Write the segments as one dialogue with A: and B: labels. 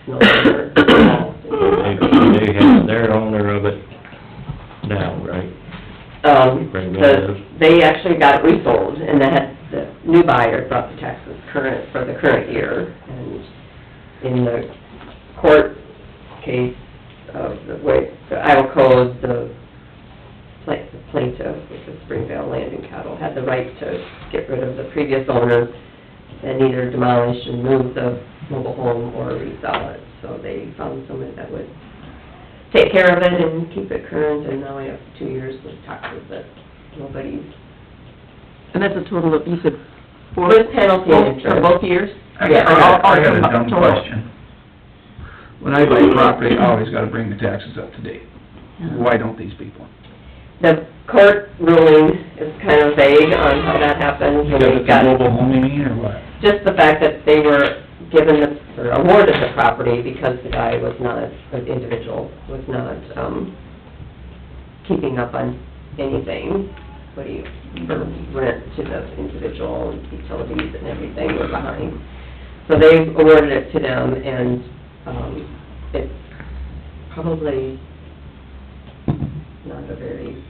A: no longer Um,
B: They,
A: policy.
B: they have their owner of it now, right?
A: Um,
B: Bring
A: the,
B: those.
A: they actually got it resold, and that, the new buyer brought the taxes current, for the current year, and in the court case of the way, the Iowa Code, the pla- the plaintiff, which is Springvale Land and Cattle, had the right to get rid of the previous owner and either demolish and move the mobile home or resell it, so they found someone that would take care of it and keep it current, and now I have two years with taxes that nobody's,
C: And that's a total of, you said four?
A: With penalty and
C: Both- For
A: interest.
C: both years?
D: I got, I got- I got a dumb question. When I buy property, I always gotta bring the taxes up to date. Why don't these people?
A: the court ruling is kind of vague on how that happens, and
D: Because
A: we've
D: it's a
A: got
D: mobile home, you mean, or what?
A: just the fact that they were given, the- or awarded the property because the guy was not, the individual was not, um, keeping up on anything, what do you, the rent to the individual, utilities and everything were behind. So they awarded it to them, and, um, it's probably not a very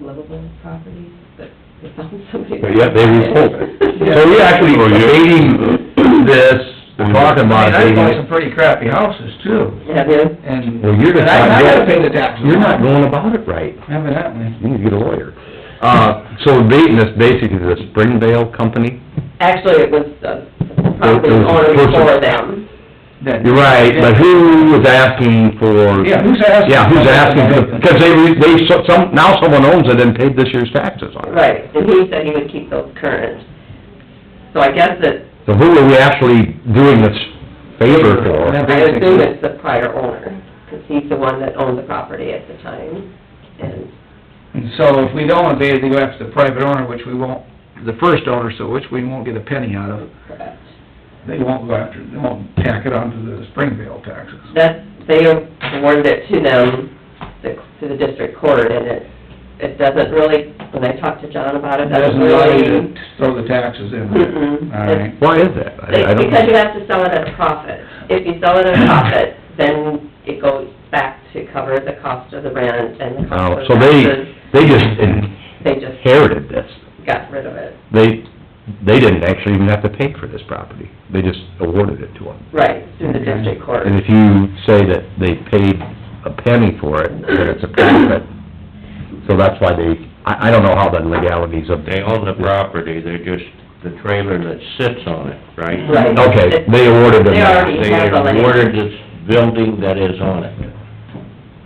A: livable property, but they found somebody.
E: But yet they resold
A: it.
E: So you're actually debating this, we're
D: I
E: talking about
D: mean, I bought
E: debating
D: some
E: it.
D: pretty crappy houses too,
A: Have you?
D: and.
E: Well, you're just
D: and I-
E: not
D: I gotta
E: going-
D: pay the taxes.
E: You're not going about it right.
D: Evidently.
E: You need to get a lawyer. Uh, so we're debating this basically to the Springvale company?
A: Actually, it was uh, probably
E: It was
A: on
E: the person-
A: before them.
D: That-
E: You're right, but who was asking for?
D: Yeah, who's asking?
E: Yeah, who's asking for, because they, re- they, so- some, now someone owns it and paid this year's taxes on it.
A: Right, and he said he would keep those current. So I guess that,
E: So who are we actually doing this favor
D: Yeah.
E: for?
A: I assume it's the prior owner, because he's the one that owned the property at the time. And
D: And so if we don't abate it, they go after the private owner, which we won't, the first owner, so which we won't get a penny out of.
A: correct.
D: They won't go after, they won't tack it onto the Springvale taxes.
A: That, they awarded it to them, the- to the district court, and it, it doesn't really, when I talked to John about it, doesn't
D: Doesn't allow you
A: really...
D: to throw the taxes in
A: Mm-mm.
D: there. All right.
E: Why is that? I I
A: It's
E: don't.
A: because you have to sell it at a profit. If you sell it at a profit, then it goes back to cover the cost of the rent and the
E: Oh,
A: cost of
E: so they,
A: taxes.
E: they just
A: They just
E: inherited this.
A: got rid of it.
E: They, they didn't actually even have to pay for this property. They just awarded it to them.
A: Right, through the district court.
E: Mm-hmm. And if you say that they paid a penny for it, then it's a profit. So that's why they, I, I don't know how the legalities of
B: They
E: that.
B: own the property, they're just the trailer that sits on it, right?
A: Right.
E: Okay, they awarded them
A: They
E: that.
A: already
B: They
A: have the land.
B: awarded this building that is on it.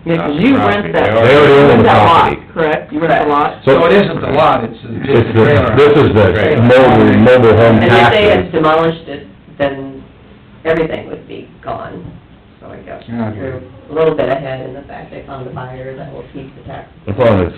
C: Yeah, 'cause you rent
B: They
C: that,
B: already-
E: They already own
C: rent
E: the
C: that lot,
E: property.
C: correct? You rent the lot?
D: So it isn't the lot, it's just
E: It's
D: the
E: the,
D: trailer.
E: this is the mobile, mobile home
A: And if they had
E: taxes.
A: demolished it, then everything would be gone. So I guess
D: Yeah.
A: you're a little bit ahead in the fact they found a buyer that will keep the tax.
E: As long as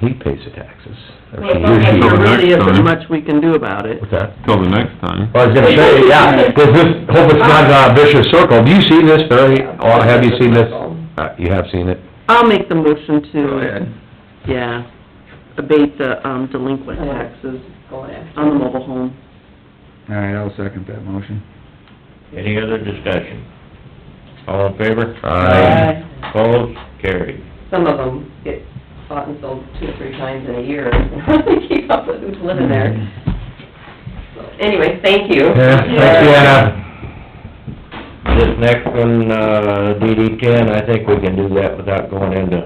E: he pays the taxes. or
A: Well,
E: he
A: it's okay.
E: or she.
F: So
C: There
F: the
C: really
F: next
C: isn't
F: time-
C: much we can do about it.
E: What's that?
F: Till the next time.
E: Well, I was gonna say, yeah, does this, hope it's not a vicious circle. Do you see this, Barry? Or have you seen this? Uh, you have seen it?
C: I'll make the
D: Go
C: motion to,
D: ahead.
C: yeah, abate the, um, delinquent
A: Uh-huh.
C: taxes
A: Going after.
C: on the mobile home.
D: All right, I'll second that motion.
B: Any other discussion? All in favor?
E: Aye.
B: Opposed, carried.
A: some of them get bought and sold two or three times in a year, and they keep up with who's living there. So Anyway, thank you.
E: Yeah, thanks, Deanna.
B: This next one, uh, DD ten, I think we can do that without going into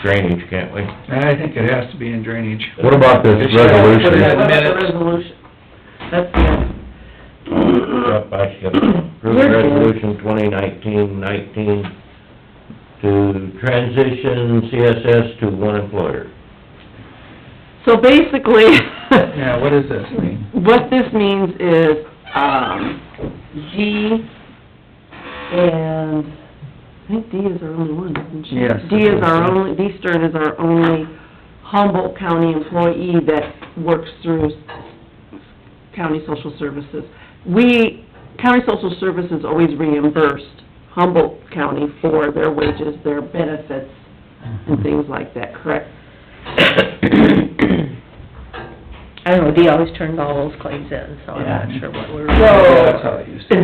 B: drainage, can't we?
D: I think it has to be in drainage.
E: What about this resolution?
D: What about the
C: resolution? That's, yeah.
B: Yep, I should approve resolution twenty nineteen nineteen to transition CSS to one employer.
C: So basically,
D: Yeah, what does this mean?
C: what this means is, um, G and, I think D is our only one, isn't she?
D: Yes.
C: D is our only, D Stern is our only Humboldt County employee that works through county social services. We, county social services always reimbursed Humboldt County for their wages, their benefits, and things like that, correct?
G: I don't know, Dee always turned all those claims in, so I'm not sure what we were.
D: That's how it used to be.